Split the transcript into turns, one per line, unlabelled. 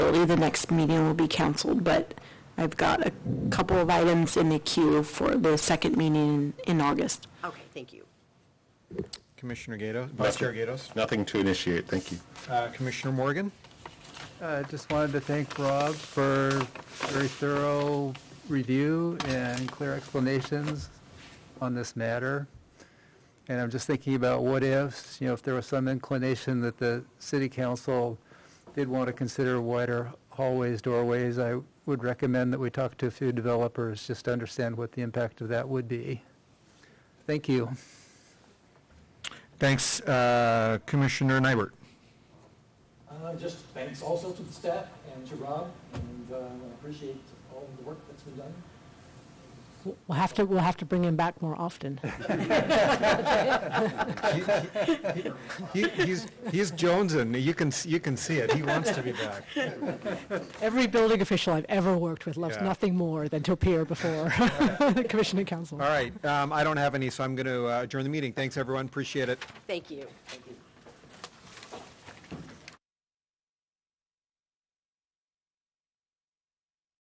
shortly, the next meeting will be canceled, but I've got a couple of items in the queue for the second meeting in August.
Okay, thank you.
Commissioner Gatos, Vice Chair Gatos,
Nothing to initiate, thank you.
uh, Commissioner Morgan.
I Uh, just wanted to thank Rob for very thorough review and clear explanations on this matter. And I'm just thinking about what ifs, you know, if there was some inclination that the city council did want to consider wider hallways, doorways, I would recommend that we talk to a few developers just to understand what the impact of that would be. Thank you.
Thanks, uh, Commissioner Nybert.
Uh, Just thanks also to the staff and to Rob, and uh, I appreciate all of the work that's been done.
We'll have to, we'll have to bring him back more often.
He, he's he's Jonesing. You can s- you can see it. He wants to be back.
Every building official I've ever worked with loves
Yeah.
nothing more than to appear before Commission and Council.
All right. Um, I don't have any, so I'm going to uh, adjourn the meeting. Thanks, everyone. Appreciate it.
Thank you. Thank you.